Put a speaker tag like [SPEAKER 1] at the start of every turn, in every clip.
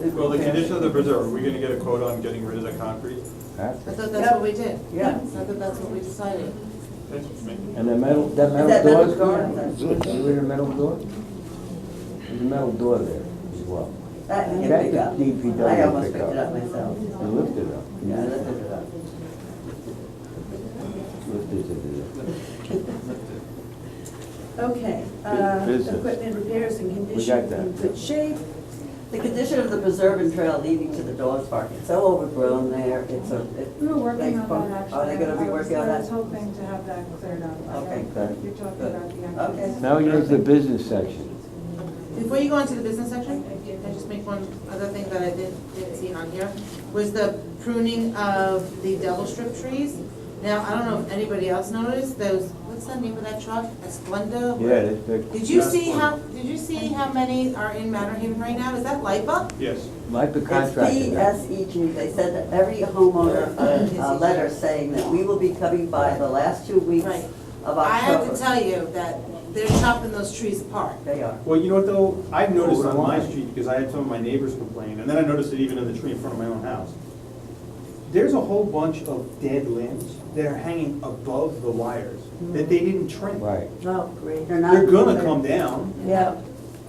[SPEAKER 1] Well, the condition of the bridge, are we gonna get a quote on getting rid of the concrete?
[SPEAKER 2] That's
[SPEAKER 3] I
[SPEAKER 2] it.
[SPEAKER 3] thought that's what we did.
[SPEAKER 4] Yeah.
[SPEAKER 3] I thought that's what we decided.
[SPEAKER 2] And the metal, that
[SPEAKER 4] that
[SPEAKER 2] metal
[SPEAKER 4] metal
[SPEAKER 2] door?
[SPEAKER 4] door?
[SPEAKER 2] Is there a metal door? There's a metal door there as well.
[SPEAKER 4] That you
[SPEAKER 2] That's
[SPEAKER 4] pick
[SPEAKER 2] the
[SPEAKER 4] up.
[SPEAKER 2] DPW
[SPEAKER 4] I almost
[SPEAKER 2] pick
[SPEAKER 4] picked it
[SPEAKER 2] up.
[SPEAKER 4] up myself.
[SPEAKER 2] You lifted up.
[SPEAKER 4] Yeah, I lifted it up.
[SPEAKER 2] Lifted it
[SPEAKER 5] Okay, uh,
[SPEAKER 2] business.
[SPEAKER 5] equipment repairs and
[SPEAKER 2] got
[SPEAKER 5] condition
[SPEAKER 2] that.
[SPEAKER 5] in good shape.
[SPEAKER 4] The condition of the preserve and trail leading to the dog park, it's so overgrown there, it's a. it-
[SPEAKER 6] We were
[SPEAKER 4] they-
[SPEAKER 6] working on that, actually.
[SPEAKER 4] Are they Oh, gonna be
[SPEAKER 6] I was-
[SPEAKER 4] working on
[SPEAKER 6] I was
[SPEAKER 4] that?
[SPEAKER 6] hoping to have that cleared up. I
[SPEAKER 4] Okay,
[SPEAKER 6] don't-
[SPEAKER 4] good.
[SPEAKER 6] You're talking
[SPEAKER 4] Good.
[SPEAKER 6] about the
[SPEAKER 4] Okay.
[SPEAKER 6] entrance.
[SPEAKER 2] up. Now we go to the business section.
[SPEAKER 3] Before you go into the business section, I just make one other thing that I did, didn't see on here, was the pruning of the devil strip trees. Now, I don't know if anybody else noticed, those, what's the name of that truck, Esplenda?
[SPEAKER 2] Yeah, that's big.
[SPEAKER 3] Did you see how, did you see how many are in Mount Haven right now? Is that LIPA?
[SPEAKER 1] Yes.
[SPEAKER 2] Might be
[SPEAKER 4] It's
[SPEAKER 2] contracted.
[SPEAKER 4] DSEG, they sent every homeowner uh, a, a letter saying that we will be coming by the last two weeks
[SPEAKER 3] Right.
[SPEAKER 4] of October.
[SPEAKER 3] I have to tell you that they're chopping those trees apart.
[SPEAKER 4] They are.
[SPEAKER 1] Well, you know what though, I've noticed
[SPEAKER 2] Oh,
[SPEAKER 1] on my
[SPEAKER 2] why?
[SPEAKER 1] street, because I had some of my neighbors complain, and then I noticed it even in the tree in front of my own house. There's a whole bunch of dead limbs that are hanging above the wires that they didn't trim.
[SPEAKER 2] Right.
[SPEAKER 4] Oh, great.
[SPEAKER 1] They're gonna come down.
[SPEAKER 4] Yeah.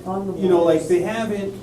[SPEAKER 1] You know, like, they haven't,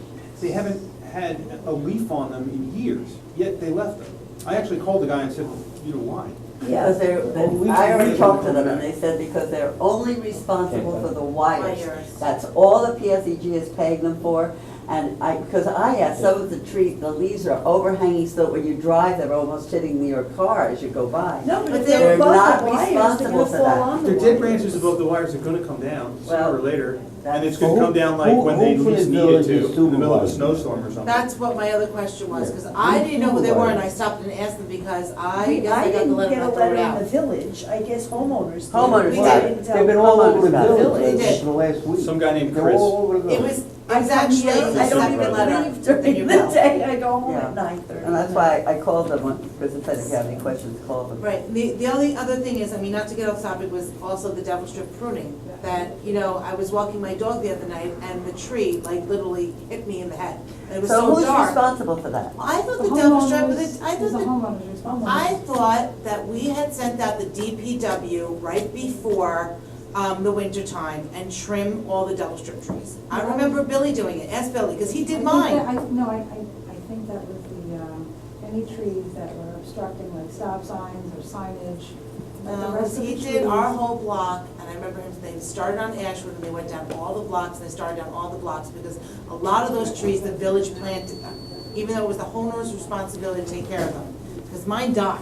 [SPEAKER 1] they haven't had a leaf on them in years, yet they left them. I actually called the guy and said, you know why?
[SPEAKER 4] Because they're, they- I already talked to them, and they said because they're only responsible for the wires.
[SPEAKER 3] Wires.
[SPEAKER 4] That's all the PSEG is paying them for, and I, because I asked, some of the tree, the leaves are overhanging, so that when you drive, they're almost hitting your car as you go by.
[SPEAKER 5] No, but
[SPEAKER 3] But
[SPEAKER 5] if they're
[SPEAKER 3] they're
[SPEAKER 5] above
[SPEAKER 4] not
[SPEAKER 5] the wires, they're
[SPEAKER 4] responsible
[SPEAKER 5] gonna
[SPEAKER 4] for
[SPEAKER 5] fall
[SPEAKER 4] that.
[SPEAKER 5] on the
[SPEAKER 1] Their
[SPEAKER 5] wires.
[SPEAKER 1] dead branches above the wires are gonna come down sooner or
[SPEAKER 4] Well,
[SPEAKER 1] later, and it's
[SPEAKER 4] that's-
[SPEAKER 1] gonna come down like when they
[SPEAKER 2] Who- who- who
[SPEAKER 1] least
[SPEAKER 2] from
[SPEAKER 1] need
[SPEAKER 2] the
[SPEAKER 1] it
[SPEAKER 2] village
[SPEAKER 1] to,
[SPEAKER 2] is
[SPEAKER 1] in the middle of a
[SPEAKER 2] supervising?
[SPEAKER 1] snowstorm or something.
[SPEAKER 3] That's what my other question was, because I didn't know who they were, and I stopped and asked them because I
[SPEAKER 6] I
[SPEAKER 3] guess I got the
[SPEAKER 6] didn't
[SPEAKER 3] letter
[SPEAKER 6] get a
[SPEAKER 3] and I threw
[SPEAKER 6] letter
[SPEAKER 3] it
[SPEAKER 6] in the
[SPEAKER 3] out.
[SPEAKER 6] village, I guess homeowners did.
[SPEAKER 4] Homeowners
[SPEAKER 6] We
[SPEAKER 4] did.
[SPEAKER 6] didn't tell
[SPEAKER 2] They've been all
[SPEAKER 4] Well,
[SPEAKER 2] over the
[SPEAKER 4] it's not-
[SPEAKER 2] village
[SPEAKER 3] They did.
[SPEAKER 2] for the last week.
[SPEAKER 1] Some guy named
[SPEAKER 2] They're
[SPEAKER 1] Chris.
[SPEAKER 2] all over the
[SPEAKER 3] It
[SPEAKER 2] village.
[SPEAKER 3] was, it was actually, I don't even let
[SPEAKER 6] I
[SPEAKER 3] her.
[SPEAKER 6] leave
[SPEAKER 3] There you
[SPEAKER 6] during the
[SPEAKER 3] go.
[SPEAKER 6] day, I go home
[SPEAKER 4] Yeah.
[SPEAKER 6] at nine thirty.
[SPEAKER 4] And that's why I called them, when- because if they have any questions, call them.
[SPEAKER 3] Right, the, the only other thing is, I mean, not to get off topic, was also the devil strip pruning. That, you know, I was walking my dog the other night and the tree like literally hit me in the head. It was
[SPEAKER 4] So
[SPEAKER 3] so
[SPEAKER 4] who's
[SPEAKER 3] dark.
[SPEAKER 4] responsible for that?
[SPEAKER 3] I thought the
[SPEAKER 6] The
[SPEAKER 3] devil strip,
[SPEAKER 6] homeowners-
[SPEAKER 3] was- I
[SPEAKER 6] it was the
[SPEAKER 3] thought, the-
[SPEAKER 6] homeowners, it's homeowners.
[SPEAKER 3] I thought that we had sent out the DPW right before, um, the winter time and trim all the devil strip trees. I remember Billy doing it, ask Billy, cause he
[SPEAKER 6] I
[SPEAKER 3] did
[SPEAKER 6] think
[SPEAKER 3] mine.
[SPEAKER 6] that- I, no, I, I, I think that was the, um, any trees that were obstructing like stop signs or signage. but the
[SPEAKER 3] Um,
[SPEAKER 6] rest of
[SPEAKER 3] he
[SPEAKER 6] the
[SPEAKER 3] did our
[SPEAKER 6] trees-
[SPEAKER 3] whole block, and I remember him, they started on Ashwood, and they went down all the blocks, and they started down all the blocks, because a lot of those trees, the village planted them, even though it was the homeowner's responsibility to take care of them, because mine died.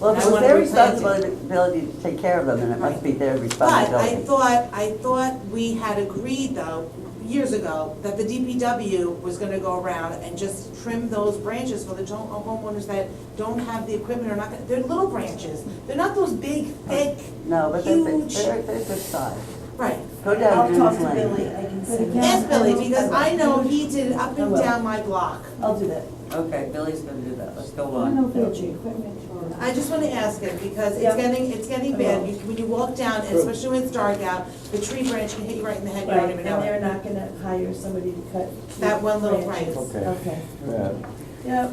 [SPEAKER 4] Well,
[SPEAKER 3] and
[SPEAKER 4] if
[SPEAKER 3] I
[SPEAKER 4] it was
[SPEAKER 3] wanted
[SPEAKER 4] their
[SPEAKER 3] to replant it.
[SPEAKER 4] responsibility to take care of them, then it must be their
[SPEAKER 3] But I
[SPEAKER 4] responsibility.
[SPEAKER 3] thought, I thought we had agreed though, years ago, that the DPW was gonna go around and just trim those branches for the to- homeowners that don't have the equipment or not, gonna- they're little branches, they're not those big, thick,
[SPEAKER 4] No, but they're,
[SPEAKER 3] huge.
[SPEAKER 4] they're, they're good size.
[SPEAKER 3] Right,
[SPEAKER 4] Go down
[SPEAKER 5] I'll talk
[SPEAKER 4] Dunes
[SPEAKER 5] to Billy,
[SPEAKER 4] Lane.
[SPEAKER 5] I can
[SPEAKER 6] But
[SPEAKER 5] see.
[SPEAKER 6] again,
[SPEAKER 3] Yes, Billy,
[SPEAKER 6] I-
[SPEAKER 3] because I know he did up and
[SPEAKER 5] Hello.
[SPEAKER 3] down my block.
[SPEAKER 5] I'll do that.
[SPEAKER 4] Okay, Billy's gonna do that, let's go
[SPEAKER 6] I don't know
[SPEAKER 4] on.
[SPEAKER 6] if it's equipment or.
[SPEAKER 3] I just wanna ask it, because it's
[SPEAKER 5] Yeah.
[SPEAKER 3] getting, it's getting bad, You- when you walk down, and especially when it's dark out, the tree branch can hit you right in the head, you
[SPEAKER 5] Right,
[SPEAKER 3] don't
[SPEAKER 5] and
[SPEAKER 3] even know
[SPEAKER 5] they're
[SPEAKER 3] it.
[SPEAKER 5] not gonna hire somebody to cut. trees,
[SPEAKER 3] That one little
[SPEAKER 5] branches.
[SPEAKER 3] branch.
[SPEAKER 2] Okay.
[SPEAKER 5] Okay,
[SPEAKER 2] Yeah,
[SPEAKER 5] yep.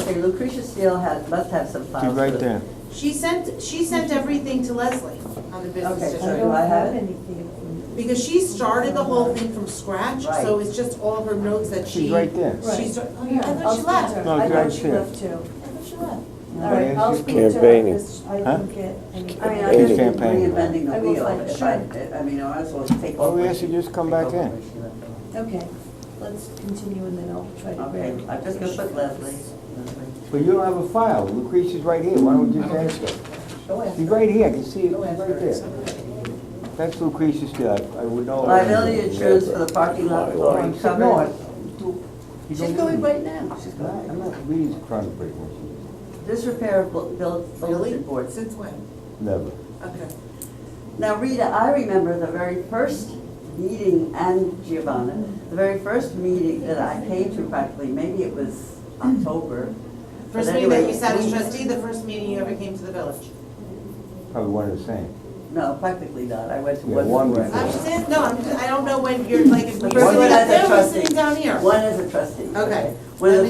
[SPEAKER 4] Okay, Lucretia Steele has, must have some
[SPEAKER 2] keep
[SPEAKER 4] files.
[SPEAKER 2] right
[SPEAKER 4] too.
[SPEAKER 2] there.
[SPEAKER 3] She sent, she sent everything to Leslie on the business
[SPEAKER 4] Okay,
[SPEAKER 5] I
[SPEAKER 4] so
[SPEAKER 3] district,
[SPEAKER 4] do
[SPEAKER 5] don't
[SPEAKER 4] I have
[SPEAKER 5] have
[SPEAKER 4] it?
[SPEAKER 5] anything.
[SPEAKER 3] because she started the whole thing from scratch, so
[SPEAKER 4] Right.
[SPEAKER 3] it's just all her notes that she.
[SPEAKER 2] She's right there.
[SPEAKER 3] She's,
[SPEAKER 5] Right.
[SPEAKER 3] oh, yeah, I
[SPEAKER 5] I'll
[SPEAKER 3] thought she
[SPEAKER 5] speak to
[SPEAKER 3] left,
[SPEAKER 5] her.
[SPEAKER 2] No,
[SPEAKER 5] I
[SPEAKER 2] right
[SPEAKER 5] thought she
[SPEAKER 2] there.
[SPEAKER 5] left too.
[SPEAKER 3] I thought she left.
[SPEAKER 5] All right, I'll speak to her,
[SPEAKER 7] Campaigning.
[SPEAKER 5] 'cause I
[SPEAKER 2] Huh?
[SPEAKER 5] didn't get any.
[SPEAKER 4] I mean, I
[SPEAKER 7] Eighty.
[SPEAKER 4] just keep
[SPEAKER 2] Campaign.
[SPEAKER 4] reinventing
[SPEAKER 5] I
[SPEAKER 4] the
[SPEAKER 5] will
[SPEAKER 4] wheel,
[SPEAKER 5] find-
[SPEAKER 4] if
[SPEAKER 5] sure.
[SPEAKER 4] I, I mean, I was supposed to take
[SPEAKER 2] Oh,
[SPEAKER 4] over.
[SPEAKER 2] yes, you just come
[SPEAKER 4] take
[SPEAKER 2] back
[SPEAKER 4] over
[SPEAKER 2] in.
[SPEAKER 4] where she left off.
[SPEAKER 5] Okay, let's continue and then I'll try to grab.
[SPEAKER 4] Okay, I'm just gonna put Leslie. Leslie.
[SPEAKER 2] But you don't have a file. Lucretia's right here. Why don't we just ask her?
[SPEAKER 4] Go ahead.
[SPEAKER 2] She's right here. I can see it
[SPEAKER 4] Go
[SPEAKER 2] right
[SPEAKER 4] ahead.
[SPEAKER 2] there. That's Lucretia Steele. I- I would know.
[SPEAKER 4] Liability insurance for the parking lot floor
[SPEAKER 2] No,
[SPEAKER 4] and
[SPEAKER 2] I-
[SPEAKER 4] cover.
[SPEAKER 2] you
[SPEAKER 4] She's
[SPEAKER 2] don't
[SPEAKER 4] going
[SPEAKER 2] need-
[SPEAKER 4] right now. She's
[SPEAKER 2] No,
[SPEAKER 4] going.
[SPEAKER 2] I'm not really trying to break my shoes.
[SPEAKER 4] Disrepair of bu- built- bulletin boards.
[SPEAKER 3] Since when?
[SPEAKER 2] Never.
[SPEAKER 3] Okay.
[SPEAKER 4] Now, Rita, I remember the very first meeting, and Giovanna, the very first meeting that I came to practically, maybe it was October. but
[SPEAKER 3] First meeting that
[SPEAKER 4] anyway,
[SPEAKER 3] you sat as
[SPEAKER 4] we-
[SPEAKER 3] trustee, the first meeting you ever came to the village.
[SPEAKER 2] Probably one of the same.
[SPEAKER 4] No, practically not, I went to
[SPEAKER 2] Yeah,
[SPEAKER 4] one.
[SPEAKER 2] one
[SPEAKER 4] before.
[SPEAKER 2] before.
[SPEAKER 3] I'm just saying, no, I'm just, I don't know when you're like, if
[SPEAKER 4] The
[SPEAKER 3] you're
[SPEAKER 4] first
[SPEAKER 3] sitting
[SPEAKER 4] one
[SPEAKER 3] up
[SPEAKER 4] as
[SPEAKER 3] there
[SPEAKER 4] a
[SPEAKER 3] or
[SPEAKER 4] trustee.
[SPEAKER 3] sitting down here.
[SPEAKER 4] One as a trustee.
[SPEAKER 3] Okay.
[SPEAKER 4] When
[SPEAKER 3] Let
[SPEAKER 4] the
[SPEAKER 3] me